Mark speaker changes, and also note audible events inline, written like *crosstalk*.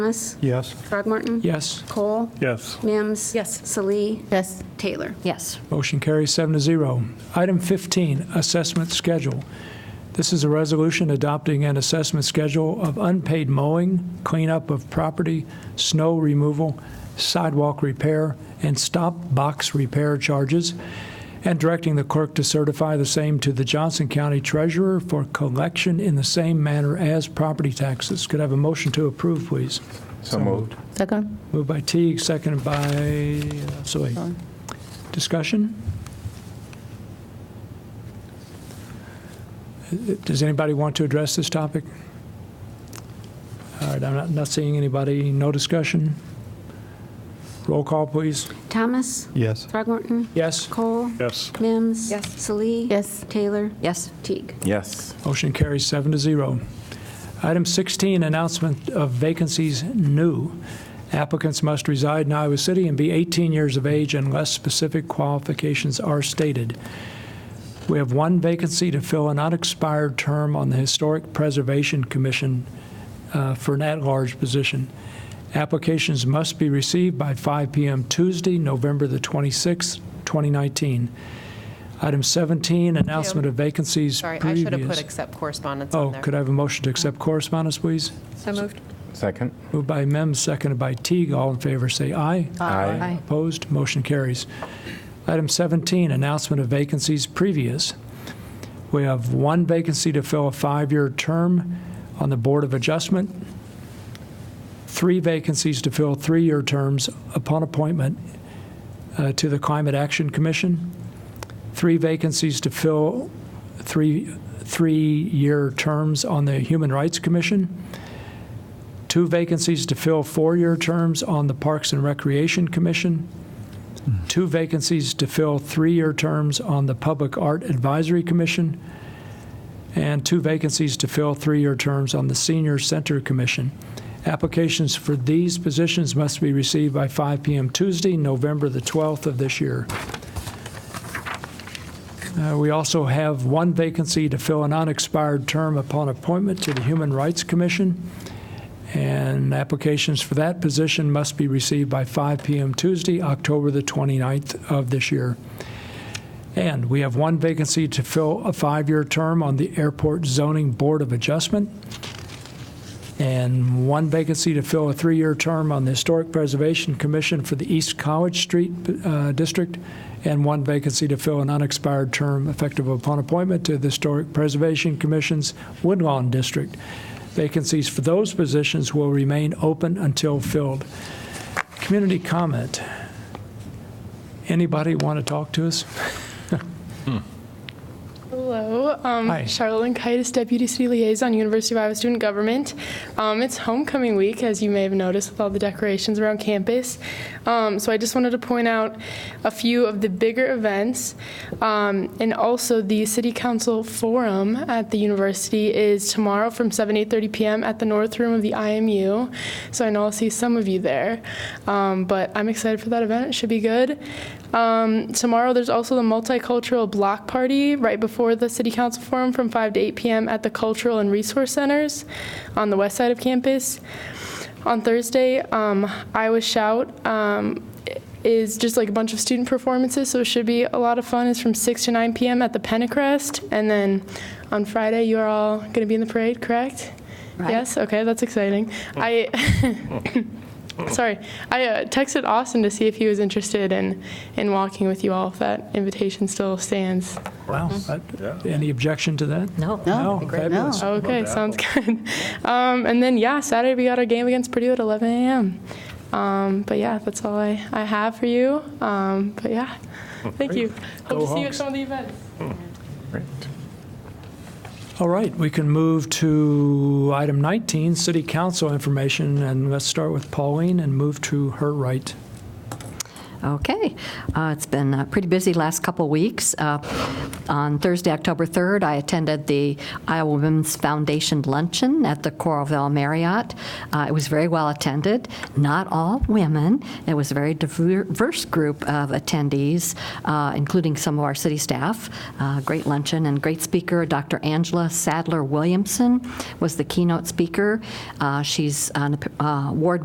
Speaker 1: Thomas?
Speaker 2: Yes.
Speaker 1: Throgmorton?
Speaker 3: Yes.
Speaker 1: Cole?
Speaker 2: Yes.
Speaker 1: Mims?
Speaker 4: Yes.
Speaker 1: Salee?
Speaker 5: Yes.
Speaker 1: Taylor?
Speaker 5: Yes.
Speaker 3: Motion carries seven to zero. Item 15, assessment schedule. This is a resolution adopting an assessment schedule of unpaid mowing, cleanup of property, snow removal, sidewalk repair, and stop box repair charges, and directing the clerk to certify the same to the Johnson County Treasurer for collection in the same manner as property taxes. Could I have a motion to approve, please?
Speaker 2: So moved.
Speaker 5: Second?
Speaker 3: Moved by Teague, seconded by uh, Soy. Discussion? Does anybody want to address this topic? All right, I'm not, not seeing anybody. No discussion? Roll call, please.
Speaker 1: Thomas?
Speaker 2: Yes.
Speaker 1: Throgmorton?
Speaker 3: Yes?
Speaker 1: Cole?
Speaker 2: Yes.
Speaker 1: Mims?
Speaker 4: Yes.
Speaker 1: Salee?
Speaker 5: Yes.
Speaker 1: Taylor?
Speaker 5: Yes.
Speaker 1: Teague?
Speaker 6: Yes.
Speaker 3: Motion carries seven to zero. Item 16, announcement of vacancies new. Applicants must reside in Iowa City and be 18 years of age unless specific qualifications are stated. We have one vacancy to fill an unexpired term on the Historic Preservation Commission uh, for an at-large position. Applications must be received by 5 p.m. Tuesday, November the 26th, 2019. Item 17, announcement of vacancies
Speaker 4: Sorry,
Speaker 3: previous.
Speaker 4: I should have put accept correspondence on
Speaker 3: Oh,
Speaker 4: there.
Speaker 3: could I have a motion to accept correspondence, please?
Speaker 4: So moved.
Speaker 6: Second?
Speaker 3: Moved by Mims, seconded by Teague. All in favor, say aye.
Speaker 6: Aye.
Speaker 3: Opposed, motion carries. Item 17, announcement of vacancies previous. We have one vacancy to fill a five-year term on the Board of Adjustment, three vacancies to fill three-year terms upon appointment uh, to the Climate Action Commission, three vacancies to fill three, three-year terms on the Human Rights Commission, two vacancies to fill four-year terms on the Parks and Recreation Commission, two vacancies to fill three-year terms on the Public Art Advisory Commission, and two vacancies to fill three-year terms on the Senior Center Commission. Applications for these positions must be received by 5 p.m. Tuesday, November the 12th of this year. Uh, We also have one vacancy to fill an unexpired term upon appointment to the Human Rights Commission. And applications for that position must be received by 5 p.m. Tuesday, October the 29th of this year. And we have one vacancy to fill a five-year term on the Airport Zoning Board of Adjustment, and one vacancy to fill a three-year term on the Historic Preservation Commission for the East College Street uh, District, and one vacancy to fill an unexpired term effective upon appointment to the Historic Preservation Commission's Woodlawn District. Vacancies for those positions will remain open until filled. Community comment. Anybody want to talk to us?
Speaker 7: Hello, um,
Speaker 3: Hi.
Speaker 7: Charlotte Lankitis, Deputy City Liaison, University of Iowa Student Government. Um, it's homecoming week, as you may have noticed, with all the decorations around campus. Um, so I just wanted to point out a few of the bigger events, um, and also the City Council Forum at the university is tomorrow from 7 8:30 p.m. at the North Room of the IMU. So I know I'll see some of you there, um, but I'm excited for that event. It should be good. Um, tomorrow, there's also the multicultural block party right before the city council forum from 5 to 8 p.m. at the Cultural and Resource Centers on the west side of campus. On Thursday, um, Iowa Shout um, is just like a bunch of student performances, so it should be a lot of fun. It's from 6 to 9 p.m. at the Pentecrest. And then on Friday, you are all going to be in the parade, correct?
Speaker 5: Right.
Speaker 7: Yes? Okay, that's exciting. I. *laughs* Sorry, I uh, texted Austin to see if he was interested in in walking with you all. If that invitation still stands.
Speaker 3: Wow. Any objection to that?
Speaker 5: No.
Speaker 3: No, fabulous.
Speaker 5: No.
Speaker 7: Okay, sounds good. *laughs* Um, and then yeah, Saturday we got our game against Purdue at 11 a.m. Um, but yeah, that's all I, I have for you. Um, but yeah, thank you. Hope
Speaker 3: Go
Speaker 7: to see you at
Speaker 3: Hawks.
Speaker 7: some of the events.
Speaker 6: Great.
Speaker 3: All right, we can move to item 19, city council information, and let's start with Pauline and move to her right.
Speaker 1: Okay. Uh, It's been uh, pretty busy last couple weeks. Uh, On Thursday, October 3rd, I attended the Iowa Women's Foundation Luncheon at the Coralville Marriott. Uh, It was very well attended, not all women. It was a very diverse group of attendees, uh, including some of our city staff. Uh, Great luncheon and great speaker, Dr. Angela Sadler Williamson was the keynote speaker. Uh, She's an uh, award